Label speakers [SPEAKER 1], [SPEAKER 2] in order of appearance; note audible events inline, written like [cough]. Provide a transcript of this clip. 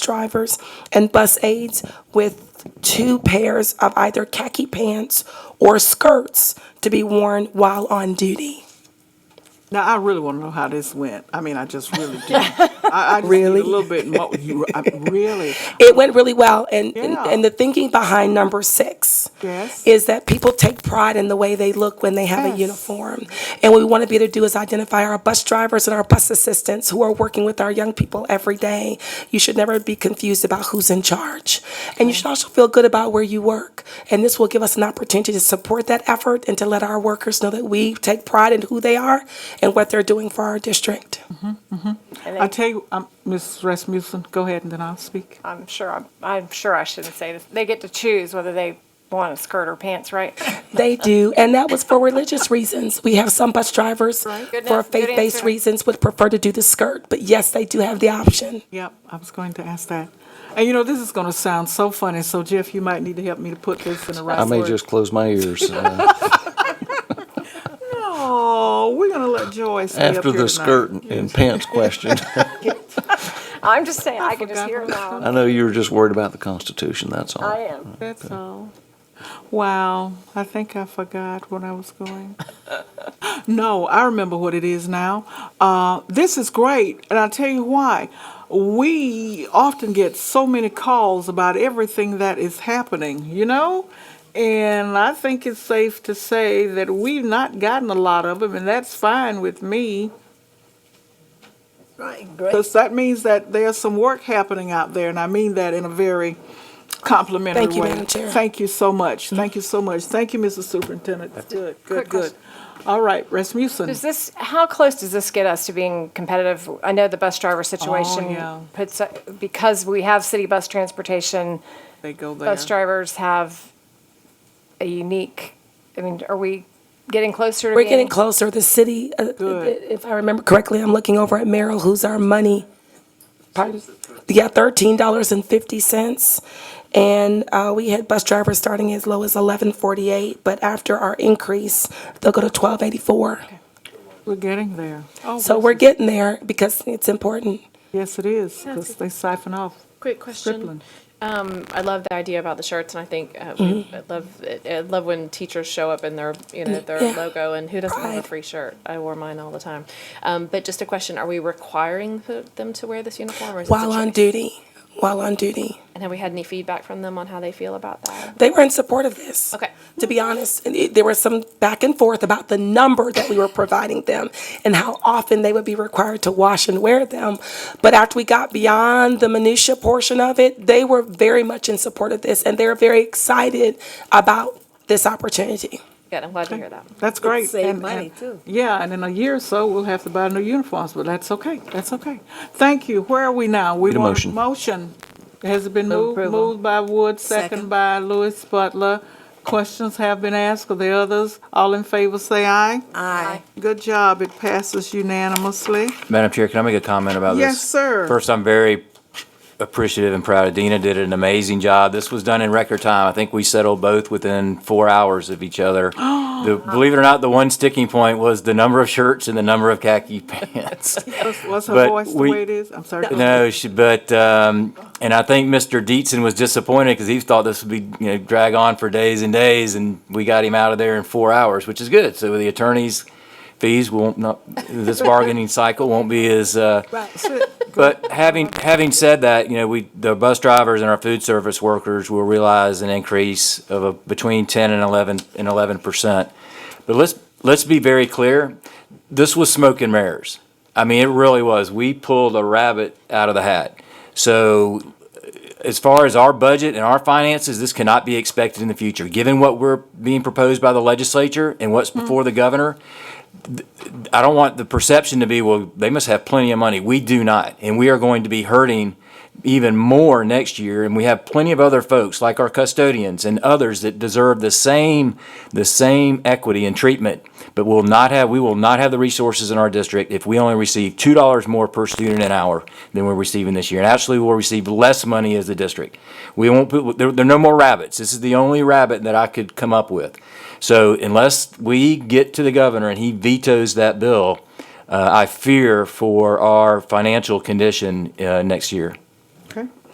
[SPEAKER 1] drivers and bus aides with two pairs of either khaki pants or skirts to be worn while on duty.
[SPEAKER 2] Now, I really want to know how this went. I mean, I just [laughs] really do. I, I just really?
[SPEAKER 1] Really?
[SPEAKER 2] a little bit more. You, I, [laughs] really?
[SPEAKER 1] It went really well, and, and-
[SPEAKER 2] Yeah.
[SPEAKER 1] and the thinking behind number six
[SPEAKER 2] Yes.
[SPEAKER 1] is that people take pride in the way they look when they have a
[SPEAKER 2] Yes.
[SPEAKER 1] uniform. And what we want to be able to do is identify our bus drivers and our bus assistants who are working with our young people every day. You should never be confused about who's in charge. And you should also feel good about where you work. And this will give us an opportunity to support that effort and to let our workers know that we take pride in who they are and what they're doing for our district.
[SPEAKER 2] I tell you, um, Ms. Rasmussen, go ahead and then I'll speak.
[SPEAKER 3] I'm sure, I'm, I'm sure I shouldn't say this. They get to choose whether they want a skirt or pants,
[SPEAKER 2] [laughs]
[SPEAKER 3] right?
[SPEAKER 1] They do, and that was for religious reasons. We have some bus drivers
[SPEAKER 2] Right.
[SPEAKER 3] Good
[SPEAKER 1] for
[SPEAKER 3] an- good
[SPEAKER 1] faith-based
[SPEAKER 3] answer.
[SPEAKER 1] reasons would prefer to do the skirt, but yes, they do have the option.
[SPEAKER 2] Yep, I was going to ask that. And you know, this is going to sound so funny. So, Jeff, you might need to help me to put this in the right
[SPEAKER 4] I may
[SPEAKER 2] word.
[SPEAKER 4] just close my ears. uh,
[SPEAKER 2] Oh, we're going to let Joyce be up
[SPEAKER 4] After
[SPEAKER 2] here
[SPEAKER 4] the
[SPEAKER 2] tonight.
[SPEAKER 4] skirt and pants question, [laughs]
[SPEAKER 3] I'm just saying, I can just
[SPEAKER 2] forgot
[SPEAKER 3] hear them all.
[SPEAKER 4] I know you were just worried about the Constitution, that's all.
[SPEAKER 3] I am.
[SPEAKER 2] That's all. Wow, I think I forgot what I was going. [laughs] no, I remember what it is now. Uh, this is great, and I'll tell you why. We often get so many calls about everything that is happening, you know? And I think it's safe to say that we've not gotten a lot of them, and that's fine with me. Right, great. Because that means that there's some work happening out there, and I mean that in a very complimentary
[SPEAKER 1] Thank you,
[SPEAKER 2] way.
[SPEAKER 1] Madam Chair.
[SPEAKER 2] Thank you so much.
[SPEAKER 5] Mm.
[SPEAKER 2] Thank you so much. Thank you, Mrs. Superintendent. Good, good,
[SPEAKER 3] Quick
[SPEAKER 2] good.
[SPEAKER 3] question.
[SPEAKER 2] All right, Rasmussen.
[SPEAKER 3] Does this, how close does this get us to being competitive? I know the bus driver situation
[SPEAKER 2] Oh, yeah.
[SPEAKER 3] puts, because we have city bus transportation,
[SPEAKER 2] They go there.
[SPEAKER 3] bus drivers have a unique, I mean, are we getting closer to
[SPEAKER 1] We're
[SPEAKER 3] being?
[SPEAKER 1] getting closer. The city, uh,
[SPEAKER 2] Good.
[SPEAKER 1] if I remember correctly, I'm looking over at Merrill, who's our money. Pardon? Yeah, thirteen dollars and fifty cents. And uh, we had bus drivers starting as low as eleven forty-eight, but after our increase, they'll go to twelve eighty-four.
[SPEAKER 2] We're getting there. Oh,
[SPEAKER 1] So
[SPEAKER 2] this
[SPEAKER 1] we're
[SPEAKER 2] is-
[SPEAKER 1] getting there because it's important.
[SPEAKER 2] Yes, it is, because they siphon off.
[SPEAKER 6] Quick question.
[SPEAKER 2] Stripling.
[SPEAKER 6] Um, I love the idea about the shirts, and I think uh, we,
[SPEAKER 1] Mm-hmm.
[SPEAKER 6] I love it, I love when teachers show up in their you know their
[SPEAKER 1] Mm, Yeah.
[SPEAKER 6] logo, and who doesn't have
[SPEAKER 1] Pride.
[SPEAKER 6] a free shirt? I wore mine all the time. Um, but just a question: Are we requiring the, them to wear this uniform, or is this a
[SPEAKER 1] While on
[SPEAKER 6] choice?
[SPEAKER 1] duty, while on duty.
[SPEAKER 6] And have we had any feedback from them on how they feel about that?
[SPEAKER 1] they were in support of this.
[SPEAKER 6] Okay.
[SPEAKER 1] To be honest, and it- there was some back and forth about the number that we were providing them and how often they would be required to wash and wear them. But after we got beyond the minutia portion of it, they were very much in support of this and they're very excited about this opportunity.
[SPEAKER 6] Good. I'm glad to hear that.
[SPEAKER 2] That's great.
[SPEAKER 5] save
[SPEAKER 2] And-
[SPEAKER 5] money,
[SPEAKER 2] and-
[SPEAKER 5] too.
[SPEAKER 2] Yeah, and in a year or so, we'll have to buy new uniforms, but that's okay, that's okay. Thank you. Where are we now? We
[SPEAKER 4] Need a
[SPEAKER 2] want
[SPEAKER 4] motion.
[SPEAKER 2] Motion. Has it been moved?
[SPEAKER 5] approval.
[SPEAKER 2] Moved by Wood, second
[SPEAKER 5] Second.
[SPEAKER 2] by Lewis Butler. Questions have been asked, are there others? All in favor, say aye.
[SPEAKER 5] Aye.
[SPEAKER 2] Good job, it passes unanimously.
[SPEAKER 7] Madam Chair, can I make a comment about this?
[SPEAKER 2] Yes, sir.
[SPEAKER 7] First, I'm very appreciative and proud. Adina did an amazing job. This was done in record time. I think we settled both within four hours of
[SPEAKER 2] [gasps]
[SPEAKER 7] each other. The- Believe it or not, the one sticking point was the number of shirts and the number of
[SPEAKER 2] [laughs]
[SPEAKER 7] khaki [laughs] pants.
[SPEAKER 2] Was- Was her
[SPEAKER 7] But
[SPEAKER 2] voice the
[SPEAKER 7] we-
[SPEAKER 2] way it is? I'm sorry.
[SPEAKER 7] No, she, but, um, and I think Mr. Dietzen was disappointed because he thought this would be, you know, drag on for days and days, and we got him out of there in four hours, which is good. So the attorney's fees won't, not, this bargaining cycle won't be as, uh, but having, having said that, you know, we, the bus drivers and our food service workers will realize an increase of a, between ten and eleven, and eleven percent. But let's, let's be very clear, this was smoke and mirrors. I mean, it really was. We pulled a rabbit out of the hat. So as far as our budget and our finances, this cannot be expected in the future. Given what we're being proposed by the legislature and what's before the governor, th- I don't want the perception to be, well, they must have plenty of money. We do not. And we are going to be hurting even more next year. And we have plenty of other folks like our custodians and others that deserve the same, the same equity and treatment. But will not have, we will not have the resources in our district if we only receive two dollars more per student an hour than we're receiving this year. And actually, we'll receive less money as the district. We won't, put there, there are no more rabbits. This is the only rabbit that I could come up with. So unless we get to the governor and he vetoes that bill, uh, I fear for our financial condition, uh, next year.